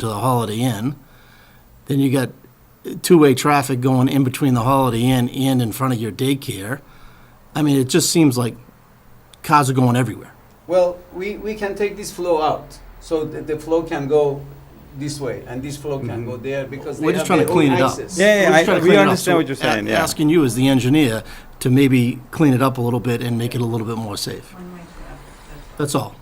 to the Holiday Inn. Then you got two-way traffic going in between the Holiday Inn and in front of your daycare. I mean, it just seems like cars are going everywhere. Well, we, we can take this flow out, so the, the flow can go this way, and this flow can go there, because they We're have just trying their to clean own it up. access. We're Yeah, yeah, just I- trying to we clean it up. understand So what you're a- saying, yeah. Asking you as the engineer to maybe clean it up a little bit and make it a little bit more safe. That's all.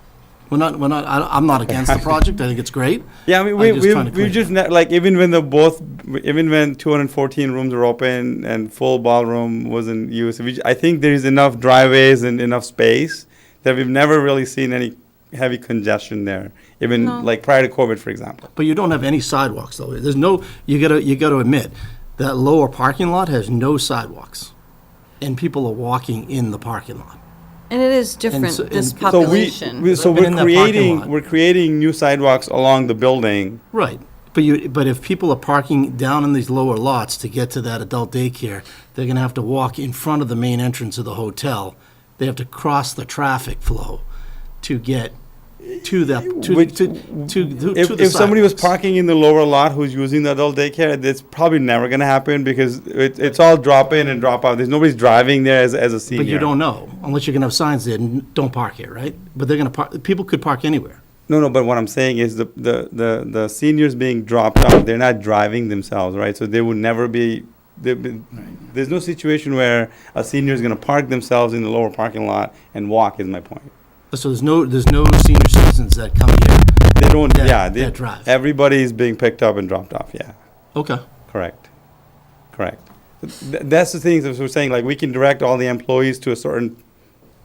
We're not, we're not, I- I'm not against the project, I think it's great. Yeah, I mean, I'm we, just we, trying to we clean it just, ne- like, even when the both, even when 214 rooms were open and full ballroom was in use, we, j- I think there is enough driveways and enough space that we've never really seen any heavy congestion there, even like prior to COVID, for example. But you don't have any sidewalks, though. There's no, you gotta, you gotta admit, that lower parking lot has no sidewalks. And people are walking in the parking lot. And it is And so- different, this and- So we, we- population. so But in we're that parking creating, lot. we're creating new sidewalks along the building. Right. But you, but if people are parking down in these lower lots to get to that adult daycare, they're gonna have to walk in front of the main entrance of the hotel. They have to cross the traffic flow to get to that, to, to, Which- to, to If, to the if somebody was sidewalks. parking in the lower lot who's using the adult daycare, that's probably never gonna happen because it, it's all drop in and drop out. There's nobody's driving there as, as a senior. But you don't know, unless you're gonna have signs there, "N- don't park here, right? But they're gonna park, people could park anywhere. No, no, but what I'm saying is the, the, the, the seniors being dropped out, they're not driving themselves, right? So they would never be, they, there's no situation where a senior is gonna park themselves in the lower parking lot and walk, is my point. So there's no, there's no senior citizens that come here. They don't, That- yeah, they, that drive. everybody is being picked up and dropped off, yeah. Okay. Correct. Correct. Th- That's the thing that we're saying, like, we can direct all the employees to a certain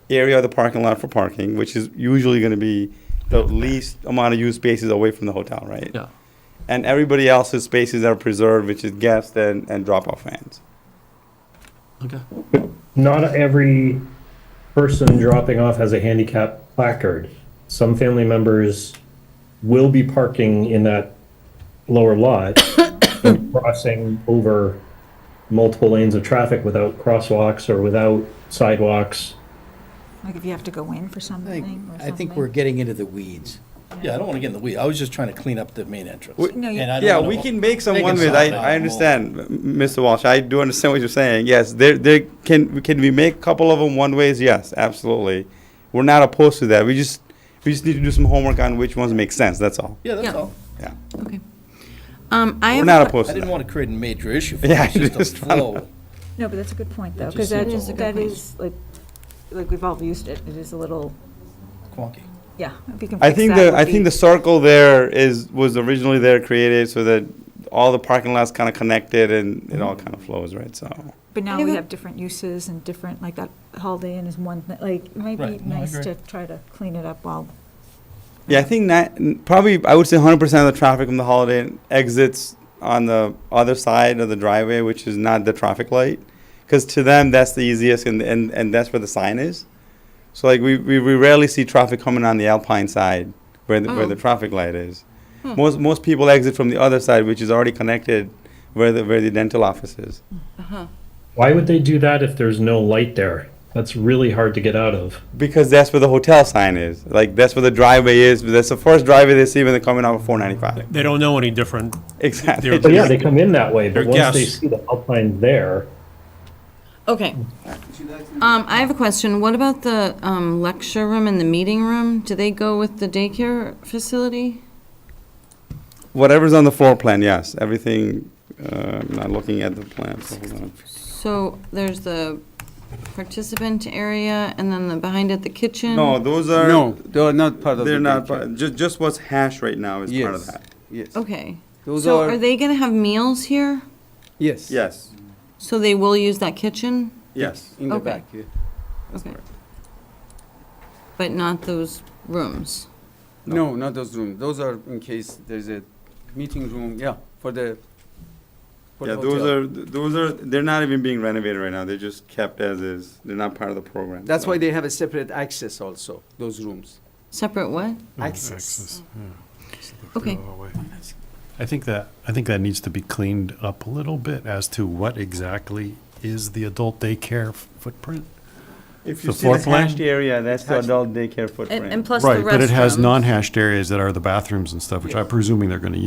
area of the parking lot for parking, which is usually gonna be the least amount of use spaces away from the hotel, right? Yeah. And everybody else's spaces are preserved, which is guests and, and drop-off fans. Okay. not every person dropping off has a handicap placard. Some family members will be parking in that lower lot and crossing over multiple lanes of traffic without crosswalks or without sidewalks. Like if you have to go in for something or I something. think we're getting into the weeds. Yeah, I don't want to get in the weeds. I was just trying to clean up the main entrance. We- No, you- And I don't Yeah, wanna- we can make some They can one-ways, solve I, it. I understand, m- Mr. Walsh, I do understand what you're saying, yes, there, there, can, can we make a couple of them one-ways? Yes, absolutely. We're not opposed to that, we just, we just need to do some homework on which ones make sense, that's all, Yeah, that's Yeah. all. yeah. Okay. Um, I We're have, not a que- opposed I to didn't that. want to create a major issue for Yeah, it. It's just just a wanna- flow. No, but that's a good point, though, because just that, seems a little that bit- is, like, like we've all used it, it is a little, Quonky. yeah, if you can I fix think that the, would I be- think the circle there is, was originally there created so that all the parking lots kind of connected and it all kind of flows, right, so. But now I we have a- have different uses and different, like that Holiday Inn is one, thing. like, it might be Right, no, I nice agree. to try to clean it up while, Yeah, I think that, probably, I would say hundred percent of the traffic from the Holiday Inn exits on the other side of the driveway, which is not the traffic light. Because to them, that's the easiest and, and, and that's where the sign is. So like, we, we we rarely see traffic coming on the Alpine side where, the- where the traffic light is. Most, most people exit from the other side, which is already connected where the, where the dental office is. Why would they do that if there's no light there? That's really hard to get out of. Because that's where the hotel sign is. Like, that's where the driveway is. That's the first driveway they see when they're coming out of 495. They don't know any different. Exactly. But yeah, they come in that way, but They're once they guests. see the Alpine there, okay. Um, I have a question. What about the, um, lecture room and the meeting room? Do they go with the daycare facility? Whatever's on the floor plan, yes. Everything, uh, I'm not looking at the plan, so hold on. So there's the participant area and then the, behind it, the kitchen? No, those are. No, they are not part of the They're not, picture. just, just what's hash right now is part of Yes, that. yes, Okay. Those So are- are they gonna have meals here? yes. Yes, So they will use that kitchen? yes. In the Okay. back, yeah. Okay. But not those rooms? No, not those rooms. Those are in case there's a meeting room, yeah, for the, for Yeah, the those hotel. are, those are, they're not even being renovated right now. They're just kept as is. They're not part of the program. That's so. why they have a separate access also, those rooms. Separate what? Access. Okay. I think that, I think that needs to be cleaned up a little bit as to what exactly is the adult daycare f- footprint. If you The see the floor plan? hashed area, that's the adult daycare footprint. And, and plus the restrooms. Right, but it has non-hashed areas that are the bathrooms and stuff, which I'm presuming they're gonna